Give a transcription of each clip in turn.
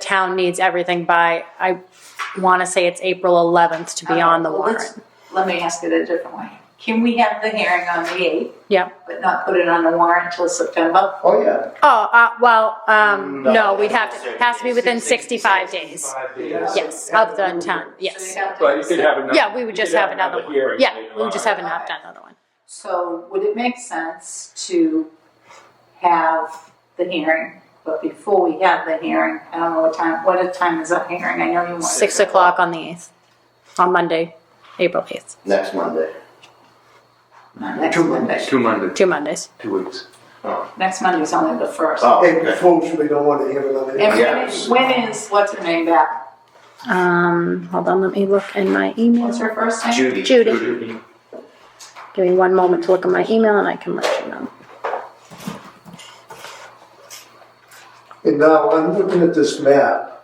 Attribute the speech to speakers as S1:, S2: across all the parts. S1: town needs everything by, I want to say it's April 11th to be on the
S2: Well, let's-
S1: warrant.
S2: Let me ask it a different way. Can we have the hearing on the eighth,
S1: Yeah.
S2: but not put it on the warrant till September?
S3: Oh, yeah.
S1: Oh, uh, well, um,
S3: No,
S1: no, we'd have to,
S4: that's
S1: has to be within 65
S4: 65
S1: days.
S4: Five
S1: Yes, of the town, yes.
S2: So you have to-
S4: But you could have another.
S1: Yeah, we would
S4: you
S1: just
S4: could
S1: have another one.
S4: hearing
S1: Yeah,
S4: later
S1: we would
S4: on.
S1: just have an opt another one.
S2: So would it make sense to have the hearing, but before we have the hearing, I don't know what time, what a time is that hearing? I know you want.
S1: 6 o'clock on the 8th, on Monday, April 8th,
S3: Next Monday.
S2: Not Next Monday.
S5: Two Mondays,
S1: two Mondays.
S5: two weeks.
S2: Next Monday's only the first.
S4: Uh,
S3: Oh,
S6: April
S3: okay.
S6: Fools, we don't want to hear it on
S2: And
S6: April.
S2: when is, when is, what's her name back?
S1: Um, hold on, let me look in my email.
S2: What's her first name?
S3: Judy.
S1: Judy, give me one moment to look at my email and I can let you know.
S6: And now I'm looking at this map.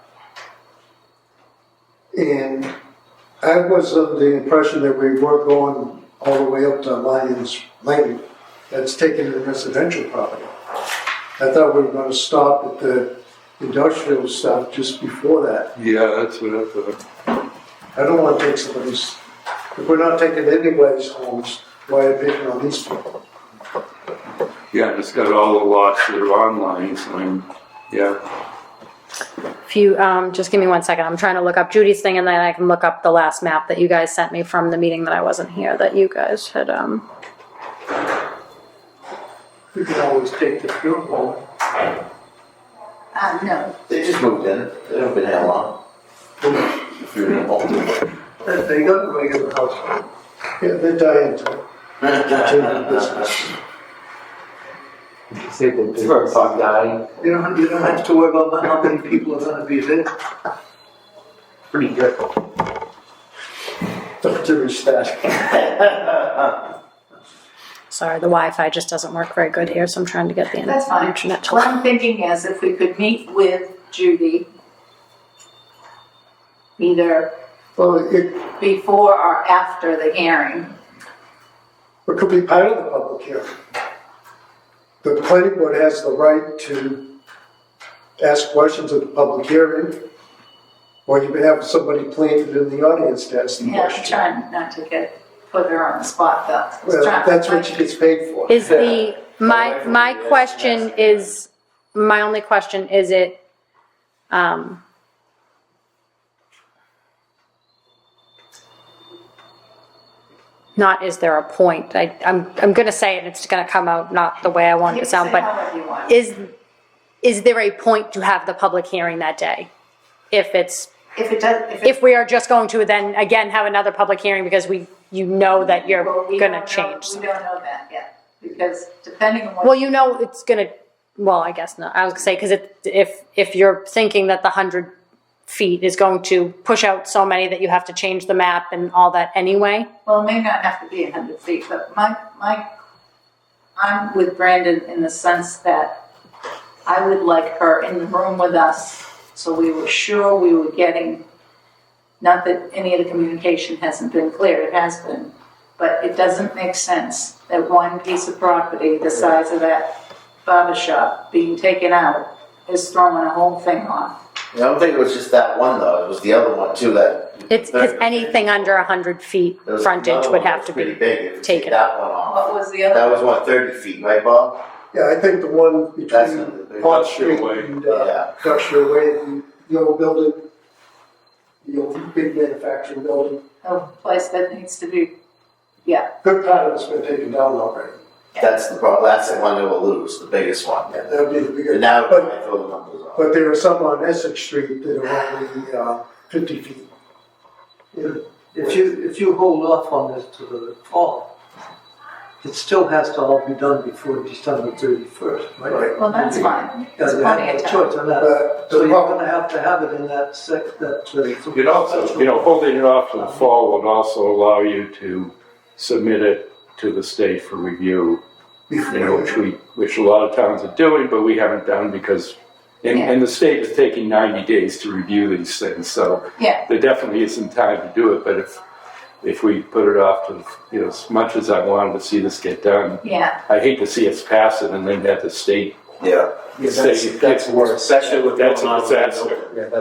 S6: And I was under the impression that we were going all the way up to Lions Lane. That's taken in residential property. I thought we were gonna stop at the industrial stuff just before that.
S5: Yeah, that's what I thought.
S6: I don't wanna take somebody's, if we're not taking anybody's homes, why are we picking on these people?
S5: Yeah, and it's got all the lots that are online, so I'm, yeah.
S1: If you, um, just give me one second, I'm trying to look up Judy's thing and then I can look up the last map that you guys sent me from the meeting that I wasn't here, that you guys had, um,
S6: We can always take the pure home.
S2: Uh, no,
S3: They just moved in. They haven't been here long.
S6: They got a regular house. Yeah, they die into it. Continue business.
S7: First, I'm dying.
S6: You don't, you don't have to worry about how many people are gonna be there.
S7: Pretty good.
S6: Don't do that.
S1: sorry, the Wi-Fi just doesn't work very good here, so I'm trying to get the in-
S2: that's fine.
S1: internet to
S2: What
S1: work.
S2: I'm thinking is if we could meet with Judy either
S6: Well, it,
S2: before or after the hearing.
S6: it could be part of the public hearing. The planning board has the right to ask questions at the public hearing, or you can have somebody planted in the audience to ask the
S2: Yeah, I'm
S6: question.
S2: trying not to get, put her on the spot though. I was
S6: Well,
S2: trying-
S6: that's what she gets paid for.
S1: Is the, my,
S4: Wi-Fi
S1: my
S4: is
S1: question
S4: messy.
S1: is, my only question, is it, um, not is there a point, I, I'm, I'm gonna say it, it's gonna come out not the way I want it
S2: You
S1: to
S2: can
S1: sound,
S2: say
S1: but
S2: however you want.
S1: is, is there a point to have the public hearing that day? If it's,
S2: If it does, if it.
S1: if we are just going to then again have another public hearing because we, you know that you're
S2: well, we
S1: gonna
S2: don't know-
S1: change.
S2: We don't know that yet, because depending on what.
S1: Well, you know it's gonna, well, I guess not, I was gonna say, cause it, if, if you're thinking that the hundred feet is going to push out so many that you have to change the map and all that anyway,
S2: Well, it may not have to be hundred feet, but my, my, I'm with Brandon in the sense that I would like her in the room with us, so we were sure we were getting, not that any of the communication hasn't been clear, it has been, but it doesn't make sense that one piece of property the size of that barber shop being taken out is throwing a whole thing off.
S3: I don't think it was just that one though. It was the other one too that.
S1: it's, cause anything under a hundred feet
S3: There was
S1: frontage
S3: another
S1: would
S3: one that
S1: have
S3: was
S1: to
S3: pretty
S1: be,
S3: big. If you take
S1: taken.
S3: That one off.
S2: What was the other?
S3: That was what thirty feet, right, Bob?
S6: Yeah, I think the one
S3: That's
S6: between
S3: the big.
S6: Pond
S5: Industrial
S6: Street
S5: Way.
S6: and, uh,
S3: Yeah.
S6: Industrial Way, the- the old building, the old big manufacturing building.
S2: A place that needs to be,
S6: Good part of it's been taken down already.
S3: That's the problem. That's the one that will lose. The biggest one.
S6: That would be the
S3: And
S6: bigger,
S3: now I
S6: But-
S3: throw the numbers off.
S6: but there are some on Essex Street that are only uh, fifty feet.
S8: If you, if you hold off on this to the fall, it still has to all be done before December thirty-first, right?
S2: well, that's fine,
S8: Yeah,
S2: there's
S8: you have
S2: plenty
S8: no
S2: of time.
S8: choice on that.
S6: But Uh, the
S8: So you're
S6: problem,
S8: gonna have to have it in that sec, that. uh,
S5: It also, you know, holding it off to the fall would also allow you to submit it to the state for review, you know, which we, which a lot of towns are doing, but we haven't done because, and, and the state is taking ninety days to review these things, so
S2: Yeah.
S5: there definitely isn't time to do it, but if, if we put it off to, you know, as much as I wanted to see this get done,
S2: yeah.
S5: I hate to see us pass it and then have the state
S3: yeah.
S7: Yeah, that's, that's worse.
S5: Especially with
S7: That's a
S5: what's going on in the
S7: disaster.
S5: open.
S7: Yeah, that's